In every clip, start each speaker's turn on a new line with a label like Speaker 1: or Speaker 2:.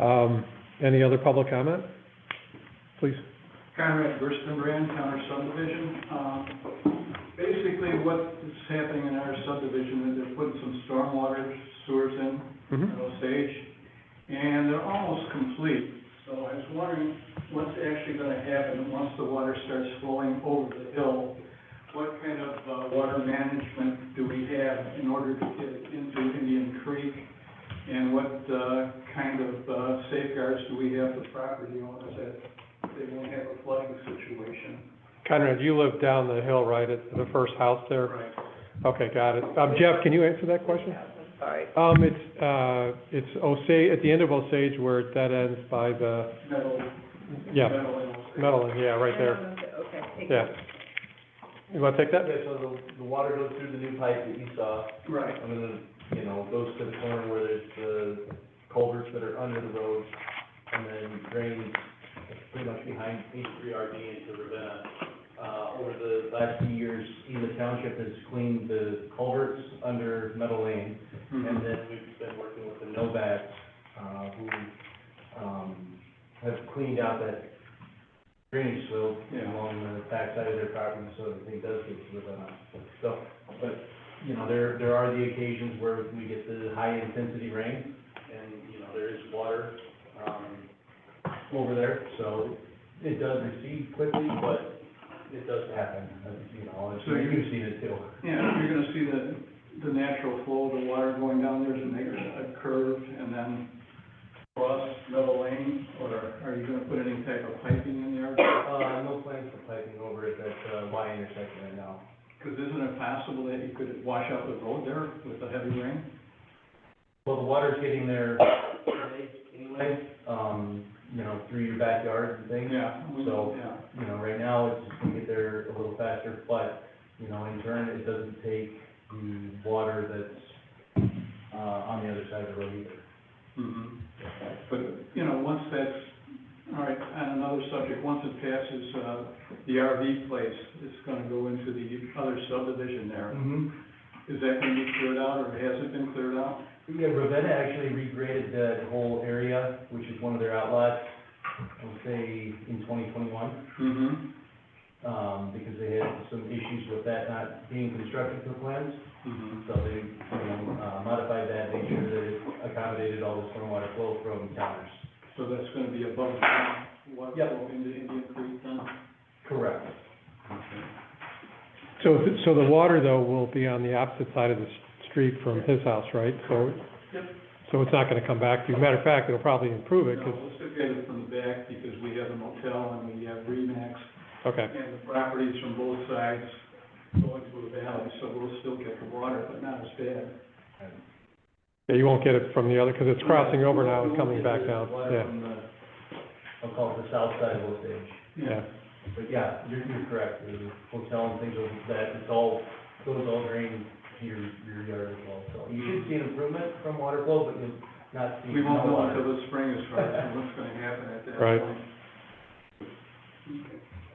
Speaker 1: Um, Any other public comment? Please.
Speaker 2: Conrad Gerstenbrand, Counter Subdivision. Um, Basically, what is happening in our subdivision is they're putting some stormwater sewers in,
Speaker 1: Mhm.
Speaker 2: at Osage, and they're almost complete. So I was wondering what's actually gonna happen once the water starts flowing over the hill? What kind of uh, water management do we have in order to get it into Indian Creek? And what uh, kind of uh, safeguards do we have for property owners that they won't have a flooding situation?
Speaker 1: Conrad, you live down the hill, right, at the first house there?
Speaker 2: Right.
Speaker 1: Okay, got it. Um, Jeff, can you answer that question?
Speaker 3: Sorry.
Speaker 1: Um, it's, uh, it's Osage, at the end of Osage where it dead ends by the,
Speaker 2: Metal.
Speaker 1: yeah,
Speaker 2: metal and-
Speaker 1: Medellin, yeah, right there.
Speaker 3: Okay. thank you.
Speaker 1: Yeah. You wanna take that?
Speaker 4: Okay, so uh, the, the water goes through the new pipe that you saw,
Speaker 2: Right,
Speaker 4: and then, you know, goes to the corner where there's the culverts that are under the road, and then drains pretty much behind H three R D into Ravenna. Uh, over the last few years, Eva Township has cleaned the culverts under Meadow Lane,
Speaker 2: Mm-hmm.
Speaker 4: and then we've been working with the Novats, uh, who, um, have cleaned out that drainage slope
Speaker 2: Yeah.
Speaker 4: along the backside of their property, so that thing does get to the, so, but, you know, there, there are the occasions where we get the high intensity rain, and, you know, there is water, um, over there, so it does recede quickly, but it does happen, you know, and so you've seen it too.
Speaker 2: yeah, you're gonna see the, the natural flow of the water going down there to make a curve and then cross metal lane, or are you gonna put any type of piping in there?
Speaker 4: Uh, no plans for piping over at that, uh, Y intersection right now.
Speaker 2: Because isn't it possible that you could wash out the road there with the heavy rain?
Speaker 4: Well, the water's getting there today anyway, um, you know, through your backyard and things.
Speaker 2: Yeah. we-
Speaker 4: So-
Speaker 2: Yeah,
Speaker 4: You know, right now, it's just gonna get there a little faster, but, you know, in turn, it doesn't take the water that's, uh, on the other side of the road either.
Speaker 2: mhm. But, you know, once that's, all right, on another subject, once it passes, uh, the RV place, it's gonna go into the other subdivision there.
Speaker 4: Mm-hmm.
Speaker 2: Is that gonna be cleared out, or has it been cleared out?
Speaker 4: Yeah, Ravenna actually regraded that whole area, which is one of their outlots, I would say in twenty twenty-one.
Speaker 2: Mm-hmm.
Speaker 4: um, because they had some issues with that not being constructed to plans.
Speaker 2: Mm-hmm.
Speaker 4: So they, you know, uh, modified that, made sure that it accommodated all the stormwater flow from counters.
Speaker 2: So that's gonna be above ground water
Speaker 4: Yep.
Speaker 2: flow into Indian Creek then?
Speaker 4: Correct.
Speaker 1: So, th- so the water though will be on the opposite side of the s- street from his house, right? So,
Speaker 2: Yep.
Speaker 1: so it's not gonna come back to you. Matter of fact, it'll probably improve it,
Speaker 2: No,
Speaker 1: 'cause-
Speaker 2: let's look at it from the back, because we have a motel and we have Remax,
Speaker 1: okay,
Speaker 2: and the properties from both sides going to the valley, so we'll still get the water, but not as bad.
Speaker 1: Yeah, you won't get it from the other, cause it's crossing over now and coming back down,
Speaker 4: Water
Speaker 1: yeah,
Speaker 4: from the- I'll call it the south side of Osage.
Speaker 1: yeah.
Speaker 4: But yeah, you're, you're correct, the hotel and things like that, it's all, those all drain to your, your yard as well. So you should see an improvement from water flow, but you'll not see
Speaker 2: We
Speaker 4: no
Speaker 2: won't know
Speaker 4: water.
Speaker 2: until the spring as far as what's gonna happen at that
Speaker 1: Right.
Speaker 2: point. Okay.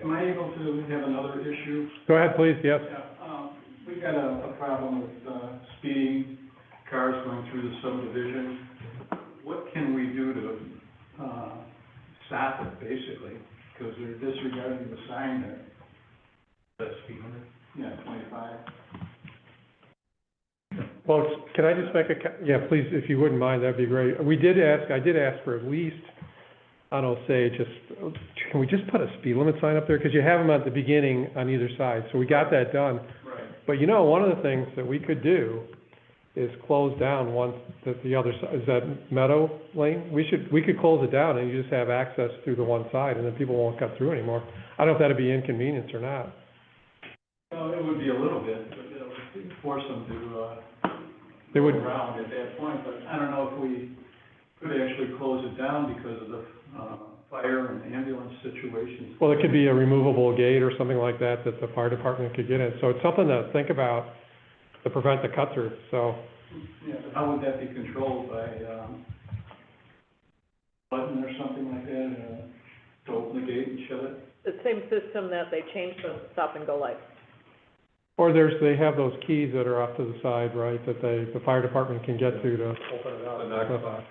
Speaker 2: Am I able to have another issue?
Speaker 1: Go ahead, please, yes.
Speaker 2: Yeah, um, we got a, a problem with, uh, speeding, cars going through the subdivision. What can we do to, uh, stop it, basically? Because they're disregarding the sign there,
Speaker 4: That's speed limit.
Speaker 2: yeah, twenty-five.
Speaker 1: Well, it's- can I just make a, co- yeah, please, if you wouldn't mind, that'd be great. We did ask, I did ask for at least, I don't say, just, can we just put a speed limit sign up there? Because you have them at the beginning on either side, so we got that done.
Speaker 2: Right.
Speaker 1: But you know, one of the things that we could do is close down once, the, the other side, is that Meadow Lane? We should, we could close it down and you just have access through the one side and then people won't cut through anymore. I don't know if that'd be inconvenience or not.
Speaker 2: Well, it would be a little bit, but it would force them to, uh,
Speaker 1: They would,
Speaker 2: around at that point, but I don't know if we could actually close it down because of the, uh, fire and ambulance situations.
Speaker 1: well, it could be a removable gate or something like that that the fire department could get in. So it's something to think about to prevent the cut through, so.
Speaker 2: Yeah, but how would that be controlled by, um, button or something like that, uh, to open the gate and shut it?
Speaker 3: The same system that they changed the stop and go light.
Speaker 1: Or there's, they have those keys that are off to the side, right, that they, the fire department can get to to.
Speaker 4: Open it up.
Speaker 1: knock box.